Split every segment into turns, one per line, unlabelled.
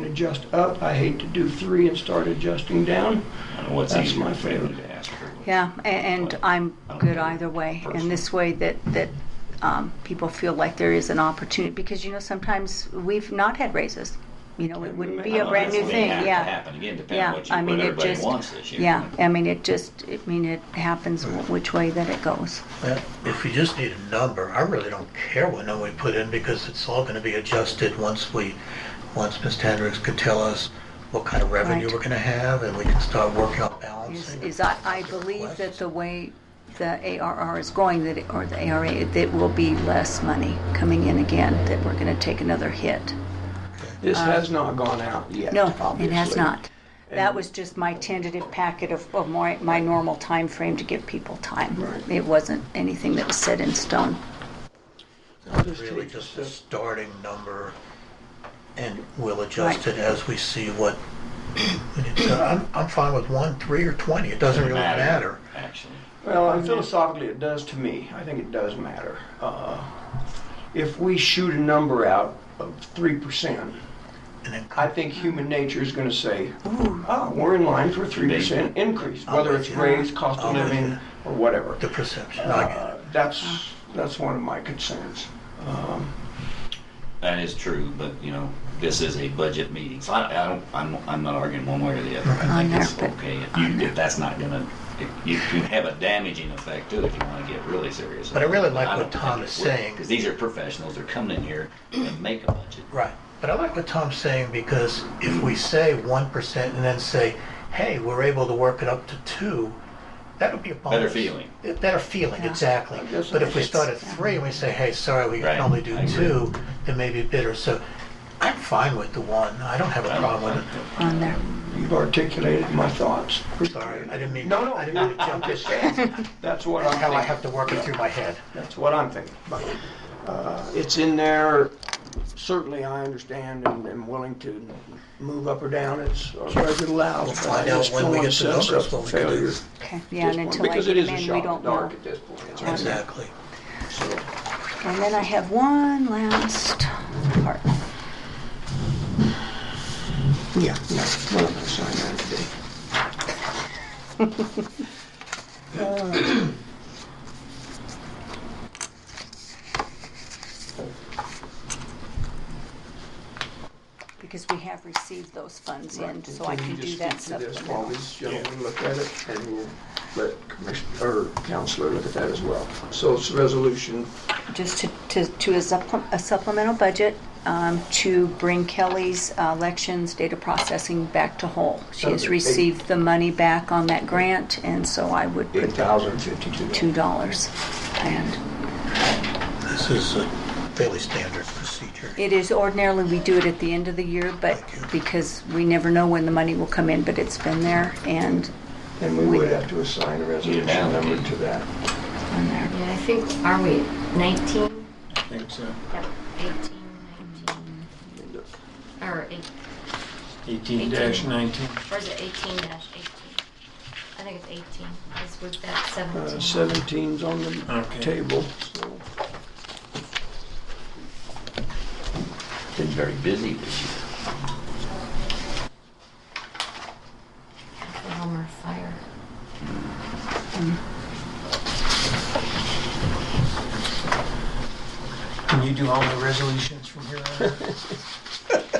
adjust up. I hate to do three and start adjusting down.
I don't know what's
That's
easier
my
for you
favorite.
to ask for.
Yeah, a- and I'm good either way. In this way that, that um, people feel like there is an opportunity, because, you know, sometimes we've not had raises. You know, it wouldn't be
I
a
know
brand
that's
new
gonna
thing,
have to
yeah.
Happen again, depending on
Yeah,
what
I
you,
mean,
what
it
everybody
just,
wants this year.
yeah, I mean, it just, I mean, it happens which way that it goes.
Well, If we just need a number, I really don't care what number we put in because it's all gonna be adjusted once we, once Ms. Hendricks can tell us what kind of revenue
Right.
we're gonna have and we can start working on
Is,
balancing.
is I, I believe that the way the ARR is going, that, it- or the ARA, that will be less money coming in again, that we're gonna take another hit.
This has not gone out yet,
Uh, No,
obviously.
it has not. That
And-
was just my tentative packet of, of my, my normal time frame to give people time.
Right.
It wasn't anything that was set in stone.
I'll
It's
just
Really
take
just
the-
a starting number and we'll adjust it as we see what, we need. So I'm, I'm fine with one, three or 20. It doesn't really matter.
Actually,
Well, and philosophically, it does to me. I think it does matter. Uh, If we shoot a number out of three percent,
And then
I think human nature is gonna say, ooh, ah, we're in line for a three percent increase,
I'm
whether
with
it's
you.
raise, cost of
I'm with
living,
you.
or whatever.
the perception, I get
Uh,
it.
That's, that's one of my concerns. Um,
that is true, but you know, this is a budget meeting, so I, I don't, I'm, I'm not arguing one way or the other. I
On
think it's
there, but-
okay if you, if that's not gonna, if you can have a damaging effect too, if you wanna get really serious.
But I really like
don't
what Tom
think
is
it would,
saying.
Cause these are professionals, they're coming in here and make a budget.
Right. But I like what Tom's saying because if we say 1% and then say, hey, we're able to work it up to 2, that would be a bonus.
Better feeling.
A Better feeling,
Yeah.
exactly.
I guess
But if we
it's-
start at 3 and we say, hey, sorry, we
Right.
can only do
I agree.
2, it may be bitter. So I'm fine with the 1. I don't have a
I don't-
problem with it.
on there.
You've articulated my thoughts.
Sorry, I didn't mean,
No, no,
I didn't mean to
I'm
jump
just
this.
saying, that's what I'm
How I
thinking.
have to work it through my head.
That's what I'm thinking. about. Uh, It's in there, certainly I understand and am willing to move up or down, it's, or whatever it allows.
We'll
but
find
I
out
just
when
don't
we
wanna
get the
set us
numbers,
up
what
for
we can do.
failure at
Okay, yeah,
this
and
point,
until I
Because it
get
is
in,
a
we
shot in the
don't
dark
know.
at this point.
Right.
Exactly.
So,
And then I have one last part.
Yeah, no, none of us signed that today.
Because we have received those funds in, so I can
you
do
just
that
speak to this While
supplemental.
these gentlemen look at it, and we'll let Commissioner, or Counselor look at that as well. So it's resolution
Just to, to, to a supple- a supplemental budget, um, to bring Kelly's uh, elections data processing back to whole. She has
Okay.
received the money back on that grant, and so I would put
eight thousand fifty-two.
two dollars. And
This is a fairly standard procedure.
it is ordinarily, we do it at the end of the year, but
Thank you.
because we never know when the money will come in, but it's been there and
And we would have to assign a resolution
Yeah.
number to that.
on there.
Yeah, I think, are we 19?
I think so.
Yep, 18, 19, or eight,
18-19.
or is it 18 dash 18? I think it's 18, because we've got
Uh,
17.
Seventeen's on the
Okay.
table, so.
Been very busy this year.
Homer Fire.
Can you do all the resolutions from here on? out?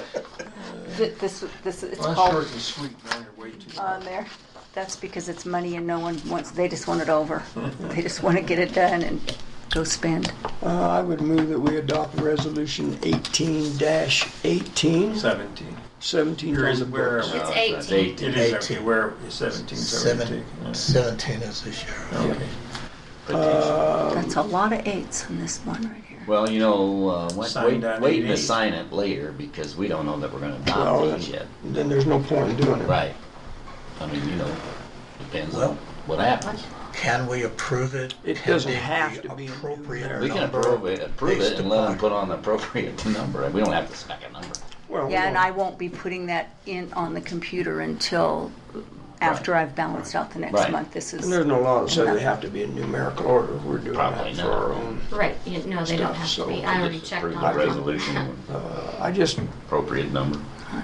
Th- This, this, it's
Well, that's short
called
and sweet, man, you're way too.
on there. That's because it's money and no one wants, they just want it over. They just want to get it done and go spend.
Uh, I would move that we adopt resolution eighteen dash eighteen.
17.
Seventeen's
Here
on
is
the
where-
books.
It's
Uh, that's
18.
It is, okay,
18.
where, 17,
Seven-
17.
17 is the sheriff.
Oh,
Okay.
That's a lot of eights on this one right here.
Well, you know, uh, wait, wait,
Signed on
wait to
88.
sign it later because we don't know that we're going to
Well,
adopt these
then-
yet.
Then there's no point in doing it.
Oh, Right. I mean, you know, depends on
Well-
what happens.
Can we approve it?
It
Can
doesn't
they
have to be in
appropriate
there.
We can
number
approve it, approve it
based
and let them
upon-
put on the appropriate number. We don't have to spec a number.
Well, we
Yeah, and
don't-
I won't be putting that in on the computer until after I've balanced out the next
Right.
month. This
There's
is,
no law that says they have to be in numerical order. We're doing
Probably
that for
not.
our own.
Right, you- no, they don't
Stuff,
have
so
to be,
we
I
We
already
just
checked
approve
on
the
them.
resolution,
Uh, I just,
appropriate number.